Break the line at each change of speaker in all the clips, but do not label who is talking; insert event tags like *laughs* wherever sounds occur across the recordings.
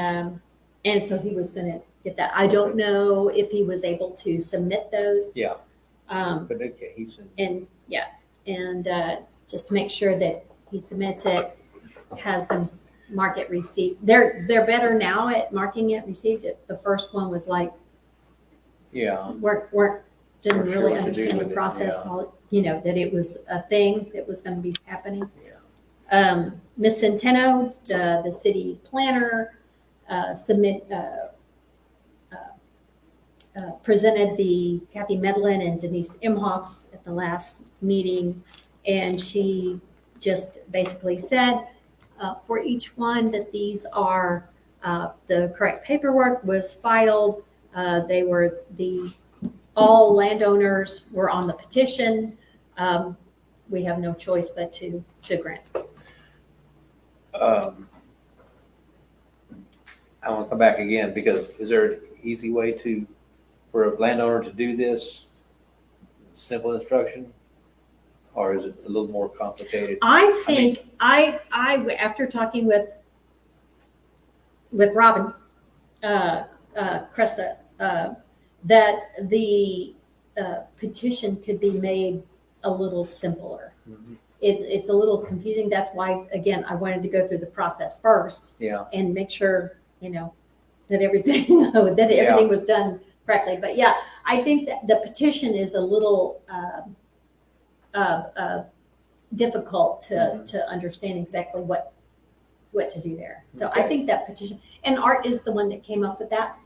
Um, and so he was going to get that. I don't know if he was able to submit those.
Yeah.
Um,
But okay, he said,
and yeah, and uh, just to make sure that he submits it, has them s- mark it received. They're they're better now at marking it received. It the first one was like
yeah,
weren't weren't didn't
Weren't sure
really
what to do
understand the
with it,
process.
yeah.
All you know that it was a thing that was going to be happening.
yeah.
Um, Ms. Centeno, the, the city planner, uh, submit, uh, uh, uh, presented the Kathy Medlin and Denise Imhoffs at the last meeting. And she just basically said, uh, for each one that these are, uh, the correct paperwork was filed. Uh, they were the, all landowners were on the petition. Um, we have no choice but to, to grant
Um, I want to come back again because is there an easy way to, for a landowner to do this? Simple instruction? Or is it a little more complicated?
I
I mean-
think I I after talking with with Robin uh, uh, Cresta uh, that the uh, petition could be made a little simpler.
Mhm.
It, it's a little confusing. That's why again I wanted to go through the process first
Yeah,
and make sure you know that everything *laughs* that everything was done correctly. But yeah, I think that the petition is a little um, uh, uh, difficult to
Mhm.
to understand exactly what what to do there. So I
Okay.
think that petition and Art is the one that came up with that.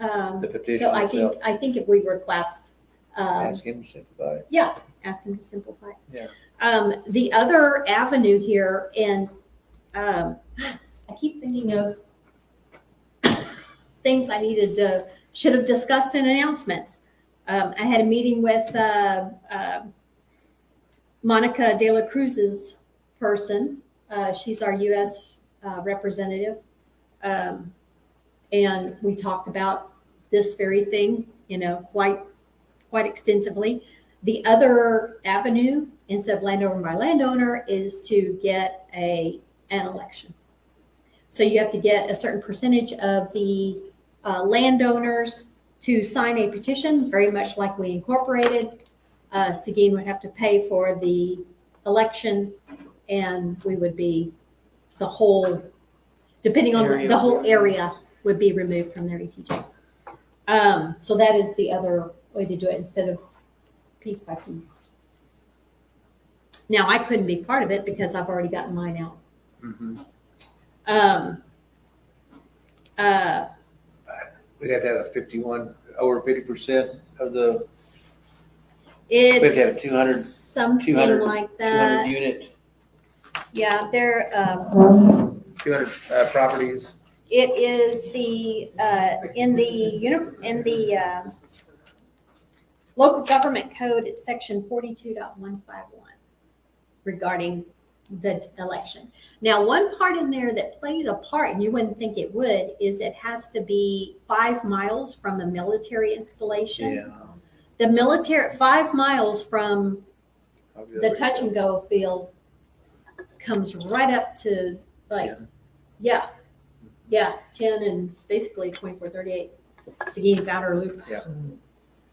Um,
the petition
so I think
itself,
I think if we request. Um,
ask him to simplify it.
yeah, ask him to simplify.
Yeah.
Um, the other avenue here, and um, I keep thinking of *coughs* things I needed to, should have discussed in announcements. Um, I had a meeting with uh, uh, Monica De La Cruz's person. Uh, she's our U.S. Uh, representative. Um, and we talked about this very thing, you know, quite quite extensively. The other avenue, instead of landowner by landowner, is to get a, an election. So you have to get a certain percentage of the uh, landowners to sign a petition, very much like we incorporated. Uh, Seguin would have to pay for the election and we would be, the whole, depending on, the- the whole area would be removed from their ETJ. Um, So that is the other way to do it instead of piece by piece. Now, I couldn't be part of it because I've already gotten mine out. Mm-hmm.
Mhm.
Um, uh,
We'd have to have a fifty-one, over fifty percent of the
it's
have 200
something
200
like
two hundred
that.
unit,
Yeah, there. Um,
two hundred uh, properties.
it is the uh, in the uni- in the uh, local government code. It's section forty-two point one five one regarding the election. Now, one part in there that plays a part, and you wouldn't think it would, is it has to be five miles from a military installation.
Yeah.
The military five miles from
I'll be
the
over
touch and go field comes right up to like, yeah, yeah, ten and basically twenty-four, thirty-eight, Seguin's outer loop.
Yeah.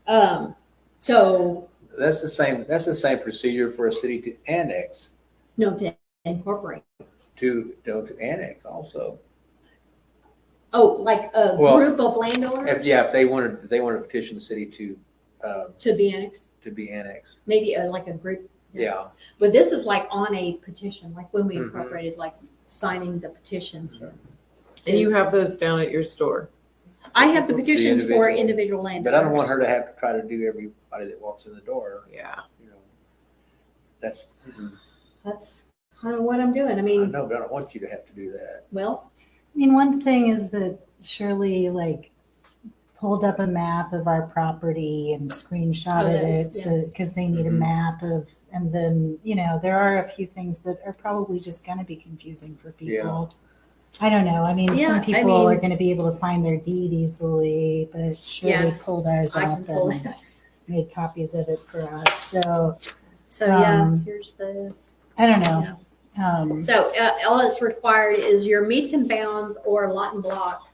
Um, so,
there. That's the same, that's the same procedure for a city to annex,
no, to incorporate,
to, no, to annex also.
oh, like a
Well,
group of
If,
landowners
yeah, if they wanted, if they wanted to petition the city to, uh,
to be annexed,
to be annexed,
maybe uh, like a group.
yeah.
But this is like on a petition, like when we
Mhm.
incorporated, like signing the petition to.
And you have those down at your store.
I have the petitions for
individual.
individual landowners.
But I don't want her to have to try to do everybody that walks in the door,
Yeah.
you know. That's, I
That's kind of what I'm doing. I mean,
know, but I don't want you to have to do that.
well,
I mean, one thing is that Shirley like pulled up a map of our property and screenshotted
Oh,
it
nice,
so because they need a
Mhm.
map of, and then you know there are a few things that are probably just going to be confusing for people. I don't know. I mean,
Yeah, I
some people
mean-
are going to be able to find their deed easily, but Shirley
Yeah.
pulled ours
I can
up
pull
and
it.
made copies of it for us. So
So yeah,
Um,
here's the.
I don't know. Um,
So uh, all that's required is your meets and bounds or lot and block